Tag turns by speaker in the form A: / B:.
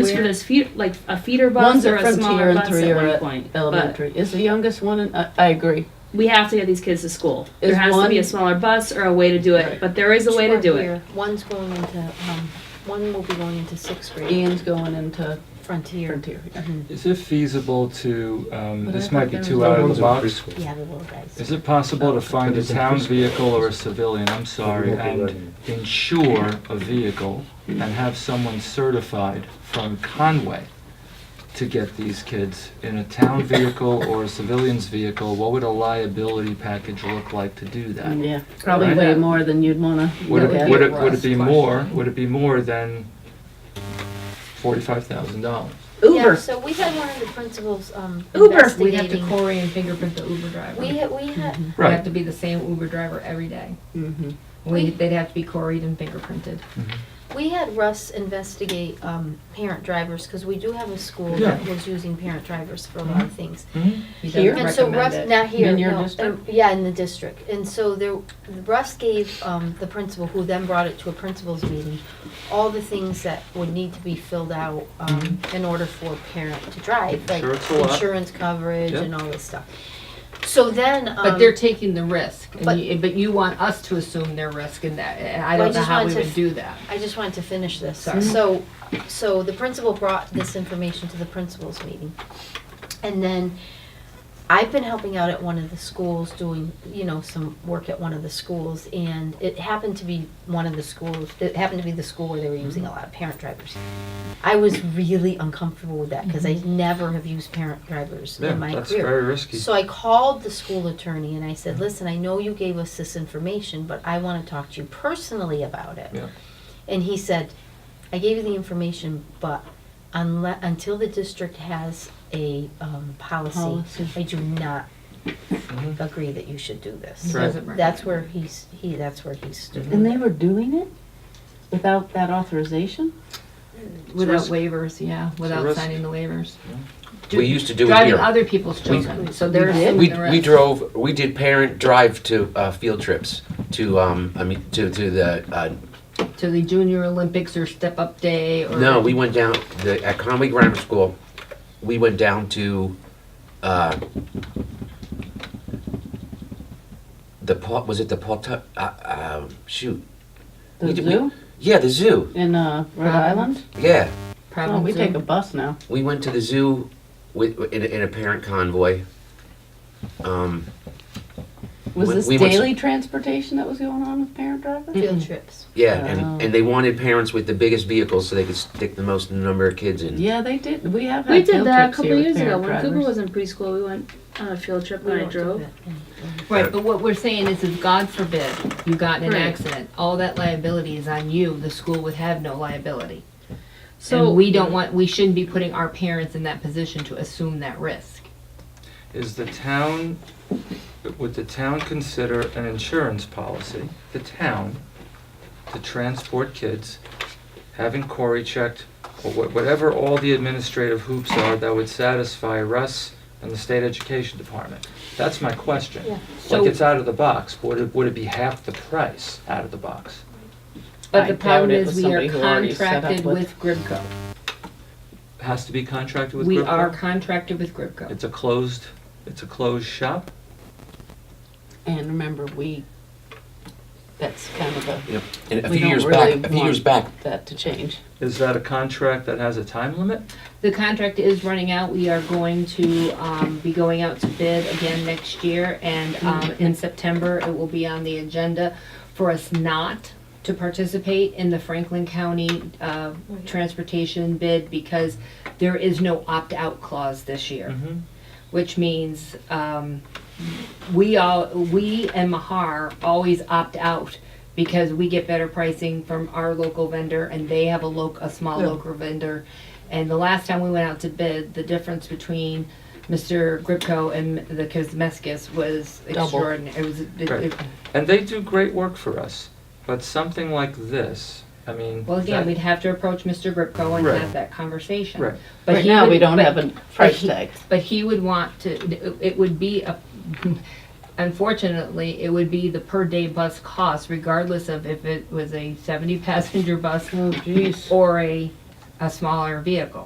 A: it as feed, like a feeder bus
B: One's
A: or
B: at
A: a
B: Frontier
A: smaller
B: and
A: bus
B: three
A: at
B: are
A: one
B: at
A: point. But
B: Elementary. Is the youngest one, in- I, I agree.
A: we have to get these kids to school. There
B: Is
A: has to be a
B: one-
A: smaller bus or a way to do it,
B: Right.
A: but there is a way to do it.
C: One's going into, um, one will be going into sixth grade,
B: Ian's going into
C: Frontier. Mm-hmm.
B: Frontier.
D: Is it feasible to, um,
B: But I
D: this
B: thought
D: might be
B: there
D: too
B: was-
D: out of the box.
E: preschool.
C: Yeah, the little guys.
D: Is it possible to find a
E: it's in
D: town
E: preschool.
D: vehicle or a civilian, I'm sorry,
E: won't be
D: and
E: letting
D: insure a vehicle and have someone certified from Conway to get these kids in a town vehicle or a civilian's vehicle? What would a liability package look like to do that?
A: Mm-hmm.
B: Yeah, probably
D: Right.
B: way more than you'd wanna.
D: Would
B: look at.
D: it, would it, would it be more, would it be more than forty-five thousand dollars?
C: Yeah,
B: Uber,
C: so we had one of the principals, um,
F: Uber. We have to
C: investigating.
F: Corey and fingerprint the Uber driver.
C: We had, we had,
F: They have
D: Right,
F: to be the same Uber driver every day.
B: Mhm.
F: We, they'd have to be Coreyed and fingerprinted.
C: we had Russ investigate, um, parent drivers, cause we do have a school that was using parent drivers for a lot of things.
D: Mm-hmm.
F: He
B: Here?
F: doesn't
C: And so
F: recommend
C: Russ,
F: it.
C: not here,
B: In your
C: no, uh,
B: district?
C: yeah, in the district, and so there, Russ gave, um, the principal, who then brought it to a principal's meeting, all the things that would need to be filled out, um,
B: Mm-hmm.
C: in order for a parent to drive, like
D: Sure, it's a lot.
C: insurance coverage
D: Yep.
C: and all this stuff. So then, um.
F: But they're taking the risk,
C: but-
F: and you, but you want us to assume their risk in that, and
C: Well,
F: I
C: I
F: don't know
C: just
F: how we
C: wanted to
F: would do that.
C: I just wanted to finish this.
F: Sorry.
C: So, so the principal brought this information to the principal's meeting. And then I've been helping out at one of the schools, doing, you know, some work at one of the schools. And it happened to be one of the schools, it happened to be the school where they were using a lot of parent drivers. I was really uncomfortable with that because I never have used parent drivers
D: yeah,
C: in my
D: that's
C: career.
D: very risky.
C: So I called the school attorney and I said,
D: Mm-hmm.
C: listen, I know you gave us this information, but I want to talk to you personally about it.
D: Yeah.
C: And he said, I gave you the information, but unless, until the district has a, um, policy,
B: Policy.
C: I do not
D: Mm-hmm.
C: agree that you should do this.
D: Right.
F: Doesn't recommend
C: That's
F: it.
C: where he's, he, that's where he stood.
B: and they were doing it without that authorization?
F: Without
D: risk.
F: waivers, yeah, without
D: risk.
F: signing the waivers.
G: We used to do it
F: Driving
G: here.
F: other people's children, so they're
B: We did?
F: assuming
G: We,
F: the
G: we
F: risk.
G: drove, we did parent drive to, uh, field trips to, um, I mean, to, to the, uh,
F: To the junior Olympics or step up day or.
G: no, we went down, the, at Conway Grammar School, we went down to, uh, the Paul, was it the Paul Tuck, uh, uh, shoot.
B: The
G: We did- we-
B: zoo
G: Yeah, the zoo,
B: in, uh, Rhode Island?
G: yeah.
A: Uh-huh.
B: Oh,
F: Problem
B: we take a
F: zone.
B: bus now.
G: We went to the zoo with, in, a- in a parent convoy. Um,
B: Was
G: We-
B: this
G: we went-
B: daily transportation that was going on with parent drivers?
C: Field trips.
G: yeah,
B: Wow.
G: and, and they wanted parents with the biggest vehicles so they could stick the most number of kids in.
B: Yeah, they did, we have
A: We
B: had
A: did
B: field
A: that a
B: trips
A: couple
B: here with
A: years ago.
B: parent
A: When Cooper
B: drivers.
A: was in preschool, we went on a field trip
C: We
A: and I
C: don't do
A: drove.
C: that.
F: Right, but what we're saying is if God forbid you got in an
A: Right.
F: accident, all that liability is on you, the school would have no liability.
A: So
F: And we don't want, we shouldn't be putting our parents in that position to assume that risk.
D: Is the town, would the town consider an insurance policy, the town, to transport kids, having Corey checked, or wha- whatever all the administrative hoops are that would satisfy Russ and the state education department? That's my question.
C: Yeah.
D: Like,
F: So-
D: it's out of the box, but would it, would it be half the price out of the box?
B: I
F: But the
B: doubt
F: problem
B: it
F: is
B: was
F: we are
B: somebody who already set up
F: contracted
B: with-
F: with Gribco.
D: Has to be contracted with
F: We
D: Gripco?
F: are contracted with Gribco.
D: It's a closed, it's a closed shop?
B: And remember, we, that's kind of a,
G: Yep. And a
B: We
G: few
B: don't
G: years
B: really
G: back, a few years
B: want-
G: back,
B: that to change.
D: Is that a contract that has a time limit?
F: The contract is running out. We are going to um, be going out to bid again next year. And um, in September, it will be on the agenda for us not to participate in the Franklin County uh, transportation bid because there is no opt-out clause this year,
D: Mm-hmm.
F: which means um, we all, we and Mahar always opt out because we get better pricing from our local vendor and they have a loc, a small
D: Yeah.
F: local vendor. And the last time we went out to bid, the difference between Mr. Gripco and the Kosmeskis was
B: Double.
F: extraordinary. It was, it-
D: Right.
F: it-
D: And they do great work for us, but something like this, I mean.
F: well, again,
D: that-
F: we'd have to approach Mr. Gripco and
D: Right.
F: have that conversation.
D: Right.
F: But
B: Right
F: he
B: now, we
F: would-
B: don't
F: but-
B: have a price
F: he-
B: tag.
F: But he would want to, it would be, a. unfortunately, it would be the per-day bus cost regardless of if it was a 70-passenger bus
B: Oh, jeez.
F: or a, a smaller vehicle.